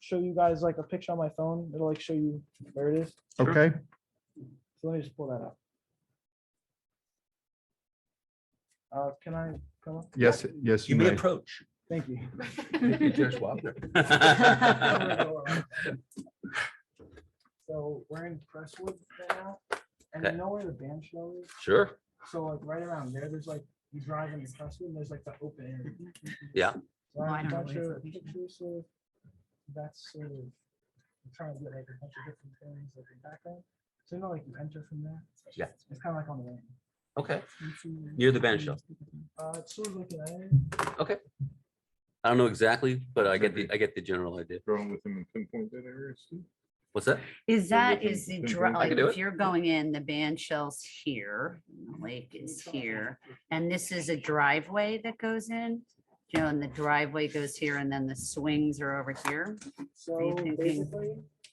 show you guys like a picture on my phone. It'll like show you where it is. Sure. Okay, So let me just pull that up. Uh, can I come up? yes, yes, you You may may. approach. Thank you. So we're in Crestwood right now, and you Okay. know where the band shell is? Sure. So like right around there, there's like, you drive into Crestwood, and there's like the open area. Yeah. So Oh, I I have a don't know bunch where it's of located. pictures of, that's sort of, I'm trying to get like a bunch of different things like in background. So you know, like you enter from there? Yeah. It's kind of like on the way. Okay. Near the band shell. Uh, it's sort of like an area. I don't know exactly, but I get the, I get the general idea. Wrong with him and pinpoint that area, Steve? What's that? Is Maybe that, we can- is the, can dri- do it. I like, can do if it. you're going in, the band shell's here, and the lake is here, and this is a driveway that goes in? You know, and the driveway goes here, and then the swings are over here, you So thinking- basically,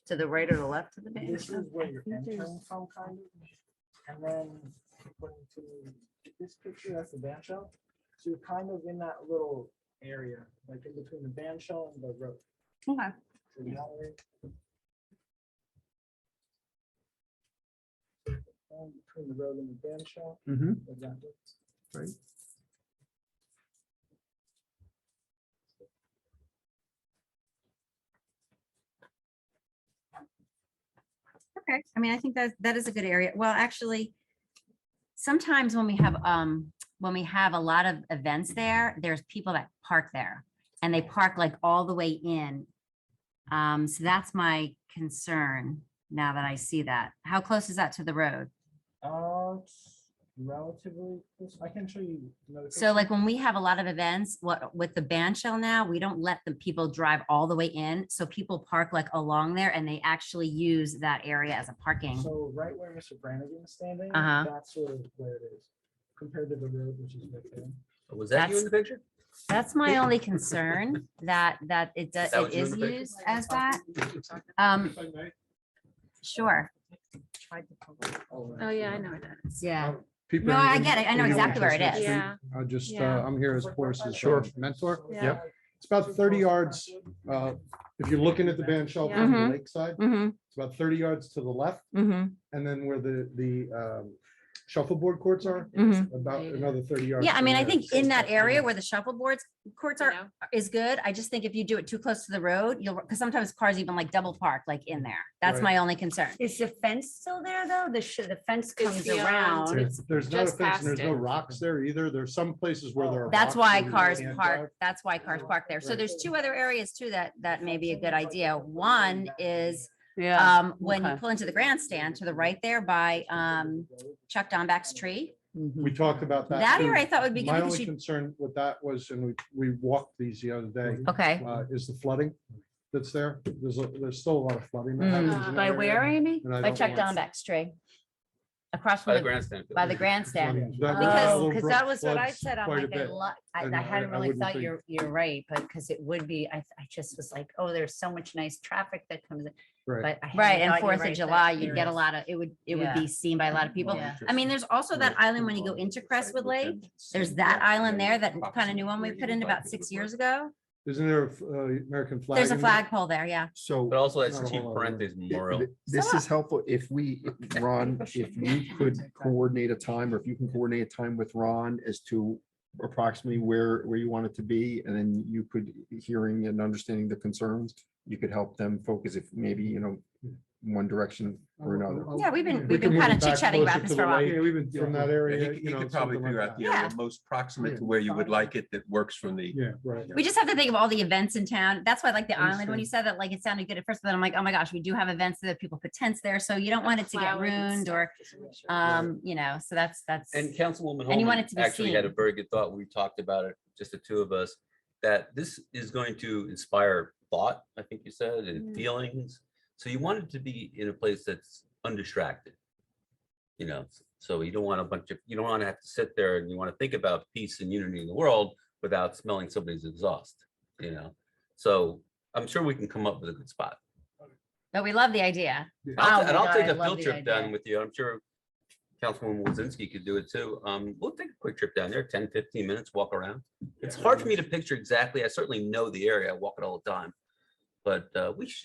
to the right or the left of the band this shell? is where you're I think there's- entering from kind of. And then according to this picture, that's the band shell. So you're kind of in that little area, like in between the band shell and the road. Okay. So you're not really- Um, Between the road and the band shell. Mm-hmm. exactly. Right. Okay, I mean, I think that, that is a good area. Well, actually, sometimes when we have, um, when we have a lot of events there, there's people that park there. And they park like all the way in. Um, so that's my concern now that I see that. How close is that to the road? Uh, it's relatively, close. I can show you. another So picture. like when we have a lot of events, what, with the ban shell now, we don't let the people drive all the way in. So people park like along there and they actually use that area as a parking. So right where Mr. Brannigan is standing, Uh-huh. that's sort of where it is compared to the road, which is right there. Was that you That's- in the picture? That's my only concern, that, that it does, that what it you is wanna pick? used as that. Um, sure. Oh, yeah, I know what that is. Yeah. Pete No, I Barrington, get it. I know you exactly where it Chestnut is. Street? Yeah, I just, uh, Yeah. I'm here as Horace's Sure. uh, mentor. Yeah. Yep. It's about thirty yards, uh, if you're looking at the band shell from the Mhm. lakeside, Mm-hmm, it's about thirty yards to the left. mm-hmm, And then where the, the um, shuffleboard courts are, mm-hmm. about another thirty yards. Yeah, I from mean, I there. think in that area where the shuffleboards courts you are, know, is good. I just think if you do it too close to the road, you'll, because sometimes cars even like double park like in there. That's Right. my only concern. Is the fence still there, though? The, sh- the fence comes beyond. around. There's- There's not a just fence and there's past no it. rocks there either. There's some places where there are. That's rocks why where you cars can't drive. park, that's why cars park there. So Right. there's two other areas too that, that may be a good idea. One is, Yeah. um, when you okay. pull into the grandstand to the right there by, um, Chuck Donback's tree. We mhm. talked about that. That too. area I thought would be good My because only you, concern with that was, and we, we walked these the other day, okay. uh, is the flooding that's there. There's, a- there's still a lot of flooding. that Mm. happens in that By area. where, Amy? And I By don't Chuck want Donback's tree. Across By from, the the- grandstand. by the grandstand. flooding. That- that Because, little because brook that was what I floods said. I'm quite a like, I bit. lo- I, And I I- hadn't I really wouldn't thought think- you're, you're right, but because it would be, I, I just was like, oh, there's so much nice traffic that comes in. Right. But right, and Fourth of July, there you'd get a is. lot of, it would, it would be seen by a lot of people. Yeah. I mean, there's also that island when you go into Crestwood Lake, there's that island there, that kind of new one we put in about six years ago. Isn't there a f- uh, American flag? There's a in there? flagpole there, yeah. So But also that's Not a Chief whole lot of room. Parentes th- Memorial. th- this So- is helpful if we, if Ron, if you could coordinate a time or if you can coordinate a time with Ron as to approximately where, where you want it to be, and then you could, hearing and understanding the concerns, you could help them focus if maybe, you know, one direction or another. I'll- Yeah, we've been- we we've can been move kinda it back chit-chatting about closer this to for a the while. lake, Yeah, we've been from that area. You you know, could probably something like figure out that. the area Yeah. most proximate to where you would like it that works from the. Yeah, right. We just have to think of all the events in town. That's why I like the island, when Understand. you said that, like, it sounded good at first, but then I'm like, oh my gosh, we do have events that people put tents there, so you don't want it to get flowers and ruined stuff, or, just to make sure. um, you know, so that's, that's. And Councilwoman And you Holman want it to be actually had a seen. very good thought. We talked about it, just the two of us, that this is going to inspire thought, I think you said, and Mm. feelings. So you want it to be in a place that's undistracted. You know, so you don't want a bunch of, you don't want to have to sit there and you want to think about peace and unity in the world without smelling somebody's exhaust, you know? So I'm sure we can come up with a good spot. But we love the idea. I'll, Oh ta- and my I'll God, take I a love field the trip down idea. with you. I'm sure Councilwoman Wozinski could do it too. Um, we'll take a quick trip down there, 10, 15 minutes, walk around. It's hard for me to picture exactly. I certainly know the area. I walk it all the time. But uh, we should